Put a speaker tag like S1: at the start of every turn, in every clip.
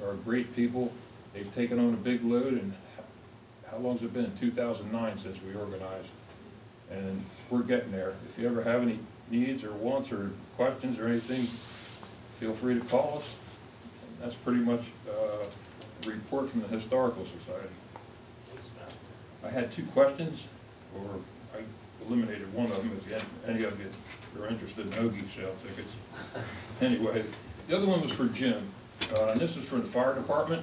S1: are, are great people. They've taken on a big load and h- how long's it been? Two thousand nine since we organized. And we're getting there. If you ever have any needs or wants or questions or anything, feel free to call us. That's pretty much, uh, a report from the Historical Society. I had two questions, or I eliminated one of them, if you- any of you are interested in Ogie sale tickets. Anyway, the other one was for Jim, uh, and this is for the fire department.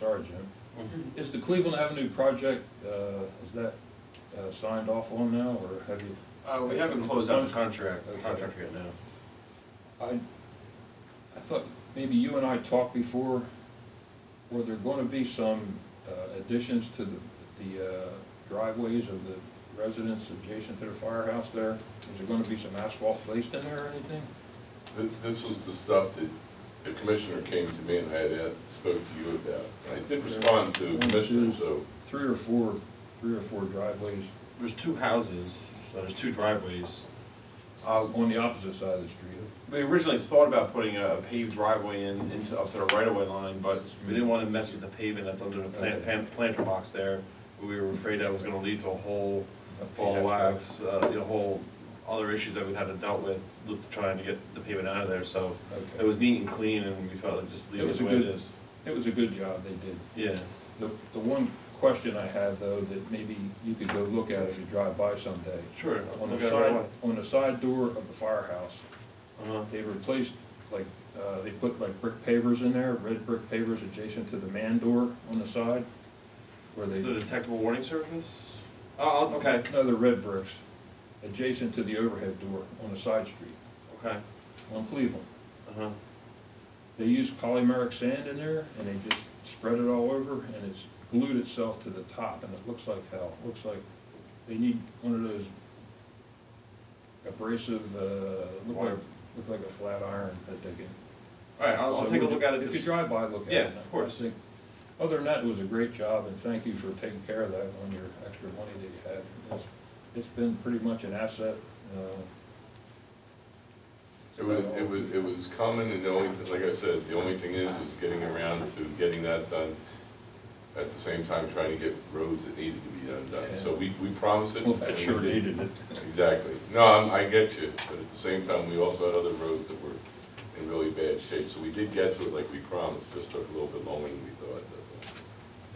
S1: Sorry, Jim.
S2: Mm-hmm.
S1: Is the Cleveland Avenue project, uh, is that uh, signed off on now, or have you?
S2: Uh, we haven't closed out the contract, the contract yet, no.
S1: I, I thought maybe you and I talked before, were there going to be some uh, additions to the the uh, driveways of the residents adjacent to the firehouse there? Is there going to be some asphalt placed in there or anything?
S3: Th- This was the stuff that the commissioner came to me and I had asked- spoke to you about. I did respond to the
S1: One, two,
S3: commissioner, so
S1: Three or four, three or four driveways
S2: There's two houses, so there's two driveways. Uh,
S1: on the opposite side of the street.
S2: We originally thought about putting a paved driveway in, into, up to the right-of-way line, but we didn't want to mess with the pavement that's under the plant, pan- planter box there. We were afraid that was going to lead to a whole fall of wax, uh, you know, whole other issues that we'd had to dealt with, with trying to get the pavement out of there, so
S1: Okay.
S2: it was neat and clean, and we felt like just leave
S1: It
S2: it
S1: was
S2: the
S1: a
S2: way it
S1: good-
S2: is.
S1: It was a good job they did.
S2: Yeah.
S1: The, the one question I have though, that maybe you could go look at if you drive by someday.
S2: Sure, I'll
S1: On the
S2: look at it right
S1: side,
S2: away.
S1: on the side door of the firehouse,
S2: Uh-huh.
S1: they replaced, like, uh, they put like brick pavers in there, red brick pavers adjacent to the man door on the side, where they,
S2: The detectable warning surface? Oh, oh, okay,
S1: no, they're red bricks, adjacent to the overhead door on the side street,
S2: okay,
S1: on Cleveland.
S2: uh-huh.
S1: They used polymeric sand in there, and they just spread it all over, and it's glued itself to the top, and it looks like hell. Looks like, they need one of those abrasive, uh, look like,
S2: Wire.
S1: look like a flat iron that they can.
S2: All right, I'll, I'll
S1: So
S2: take a
S1: would
S2: look
S1: you-
S2: at it.
S1: If you
S2: this-
S1: drive by, look at it.
S2: Yeah, of course.
S1: I think- Other than that, it was a great job, and thank you for taking care of that on your extra money that you had. It's- It's been pretty much an asset, uh,
S3: it was, it was, it was common and the only, like I said, the only thing is, is getting around to getting that done. At the same time, trying to get roads that needed to be done done. So we, we promised it.
S1: well,
S3: and
S1: that
S3: we
S1: sure
S3: did.
S1: needed it.
S3: Exactly. No, I'm- I get you, but at the same time, we also had other roads that were in really bad shape. So we did get to it like we promised, just took a little bit longer than we thought. that's all.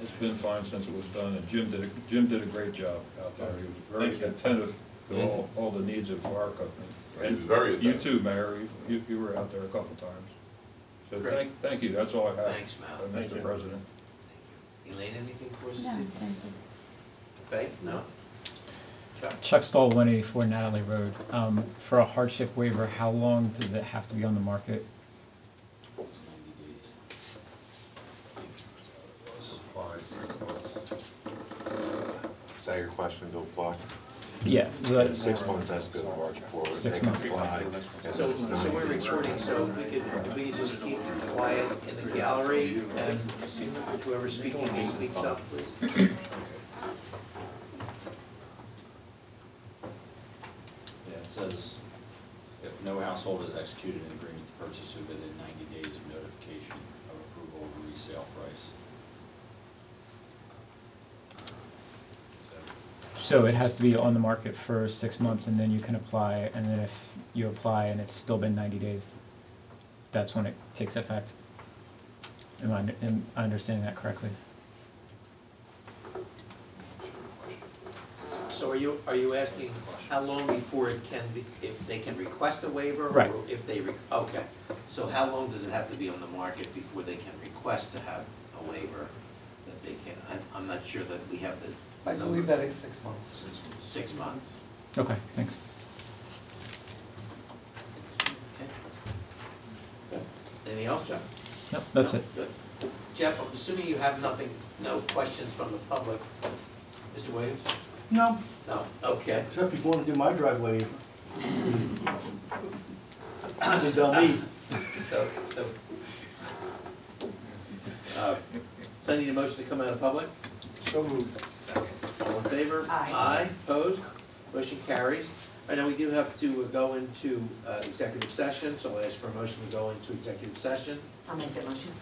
S1: It's been fine since it was done, and Jim did, a- Jim did a great job out there. He was
S2: Thank
S1: very
S2: you. Mm-hmm.
S1: attentive to all, all the needs of the fire company.
S3: He was very
S1: And You
S3: attentive.
S1: too, Mayor, You- you, you were out there a couple times. So thank, thank you, that's all I have.
S4: Thanks, Mal.
S1: uh,
S2: Thank
S1: Mr.
S2: you.
S1: President.
S4: Elaine, anything for us?
S5: No, thank you.
S4: Okay, no?
S6: Chuck Stoll, 184 Natalie Road. Um, For a hardship waiver, how long does it have to be on the market?
S4: It's ninety days.
S7: Is that your question, to apply?
S6: Yeah. the-
S7: Six months has been the market for it.
S6: Six
S7: They can
S6: months.
S7: apply, and
S4: So,
S7: then it's
S4: so
S7: ninety
S4: we're
S7: days.
S4: recording, so if we could, if we could just keep quiet in the gallery, and whoever's speaking just speaks up, please.
S8: Yeah, it says, if no household has executed an agreement to purchase it within ninety days of notification of approval of resale price.
S6: So it has to be on the market for six months, and then you can apply, and then if you apply and it's still been 90 days, that's when it takes effect. Am I am I understanding that correctly?
S4: So are you, are you asking how long before it can be, if they can request a waiver? or
S6: Right.
S4: If they, re- okay, so how long does it have to be on the market before they can request to have a waiver that they can, I'm, I'm not sure that we have the.
S9: I believe that is six months.
S4: Six months.
S6: Okay, thanks.
S4: Good. Anything else, Jeff?
S6: Nope, that's
S4: No?
S6: it.
S4: Good. Jeff, I'm assuming you have nothing, no questions from the public. Mr. Williams?
S9: No,
S4: No, okay.
S9: except if you want to do my driveway. It's on me.
S4: So, so. uh, So I need a motion to come out of public?
S9: So moved.
S4: All in favor?
S5: Aye.
S4: Aye, opposed? Motion carries. I know we do have to go into uh, executive session, so I'll ask for a motion to go into executive session.
S5: I'll make that motion.